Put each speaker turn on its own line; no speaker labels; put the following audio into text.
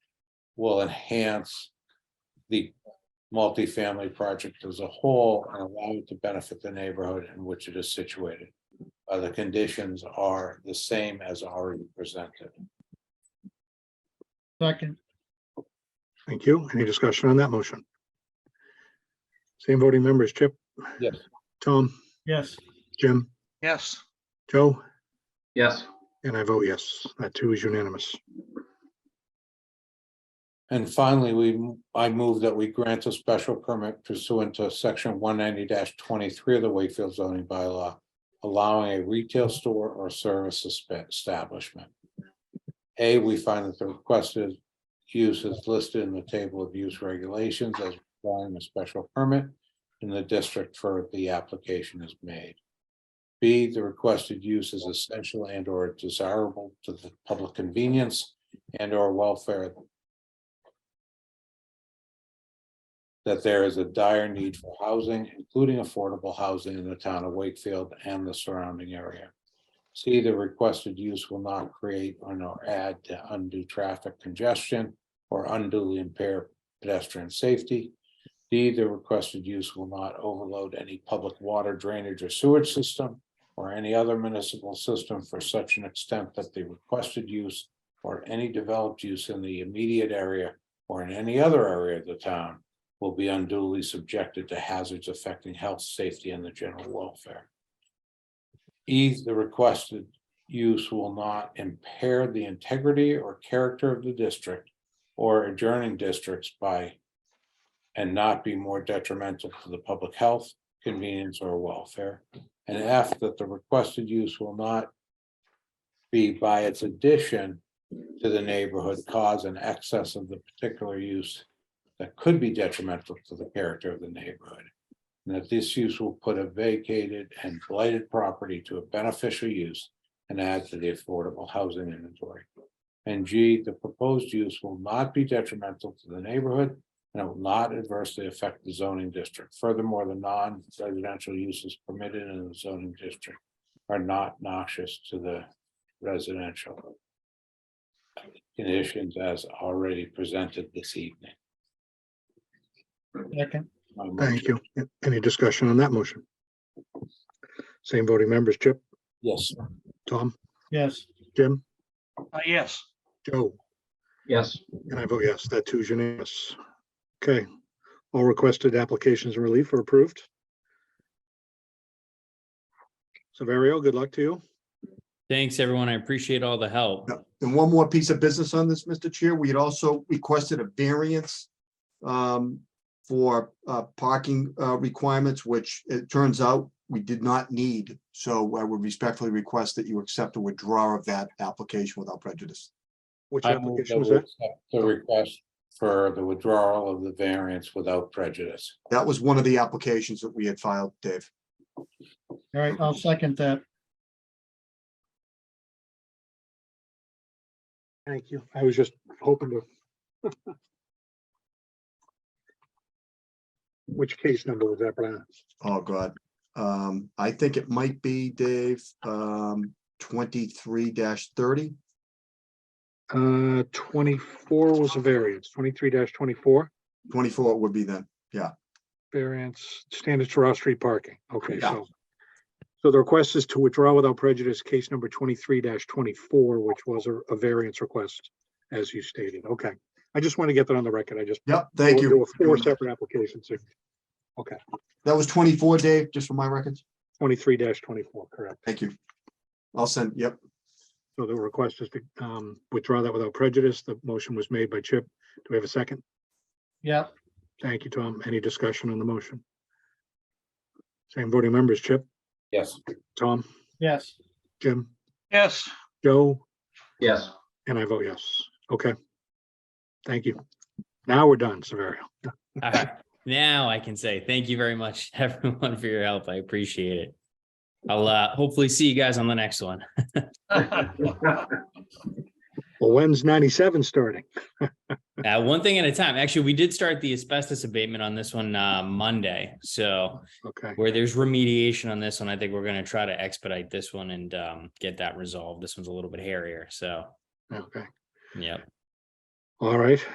will enhance the multifamily project as a whole and allow it to benefit the neighborhood in which it is situated. Uh, the conditions are the same as already presented.
second,
Thank you. Any discussion on that motion? Same voting members, Chip?
Yes.
Tom,
yes,
Jim,
yes,
Joe,
yes,
and I vote yes. That too is unanimous.
And finally, we, I move that we grant a special permit pursuant to section one ninety twenty-three of the Wakefield zoning bylaw. Allowing a retail store or service espe- establishment. A, we find that the requested use is listed in the table of use regulations as requiring a special permit. In the district for the application is made. B, the requested use is essential and or desirable to the public convenience and or welfare that there is a dire need for housing, including affordable housing in the town of Wakefield and the surrounding area. C, the requested use will not create or nor add to undue traffic congestion or unduly impair pedestrian safety. D, the requested use will not overload any public water drainage or sewage system or any other municipal system for such an extent that the requested use or any developed use in the immediate area or in any other area of the town will be unduly subjected to hazards affecting health, safety, and the general welfare. E, the requested use will not impair the integrity or character of the district or adjoining districts by and not be more detrimental to the public health, convenience, or welfare. And F, that the requested use will not be by its addition to the neighborhood cause an excess of the particular use that could be detrimental to the character of the neighborhood. And that this use will put a vacated and blighted property to a beneficial use and add to the affordable housing inventory. And G, the proposed use will not be detrimental to the neighborhood and it will not adversely affect the zoning district. Furthermore, the non-residential uses permitted in the zoning district are not noxious to the residential conditions as already presented this evening.
second,
My
Thank
motion.
you. Any discussion on that motion? Same voting members, Chip,
Yes,
Tom,
yes,
Jim,
uh, yes,
Joe,
yes,
and I vote yes. That too is unanimous. Okay, all requested applications and relief are approved. Saverio, good luck to you.
Thanks, everyone. I appreciate all the help.
Yeah. And one more piece of business on this, Mr. Chair, we had also requested a variance um, for uh, parking uh, requirements, which it turns out we did not need. So I would respectfully request that you accept a withdrawal of that application without prejudice.
Which
I move
application
that
was
we
that?
accept the request for the withdrawal of the variance without prejudice.
That was one of the applications that we had filed, Dave.
all right, I'll second that,
Thank you. I was just hoping to. Which case number was that, Brian?
Oh, God. Um, I think it might be, Dave, um, twenty-three thirty.
Uh, twenty-four was a variance, twenty-three twenty-four,
Twenty-four would be then.
variance, standards for off-street parking. Okay,
Yeah.
so. So the request is to withdraw without prejudice, case number twenty-three twenty-four, which was a, a variance request, as you stated. Okay. I just want to get that on the record. I just.
Yep, thank you.
There were four separate applications, so
That was twenty-four, Dave, just for my records.
twenty-three twenty-four, correct.
Thank you. I'll send, yep,
So the request is to um, withdraw that without prejudice. The motion was made by Chip. Do we have a second?
yeah,
Thank you, Tom. Any discussion on the motion? Same voting members, Chip,
Yes,
Tom,
yes,
Jim,
yes,
Joe,
yes.
and I vote yes. Okay. Thank you. Now we're done, Severio.
All right. Now I can say thank you very much, everyone, for your help. I appreciate it. I'll uh, hopefully see you guys on the next one.
Well, when's ninety-seven starting?
Uh, one thing at a time. Actually, we did start the asbestos abatement on this one uh, Monday. So
Okay,
where there's remediation on this one, I think we're going to try to expedite this one and um, get that resolved. This one's a little bit hairier. So,
okay.
yeah.
All right.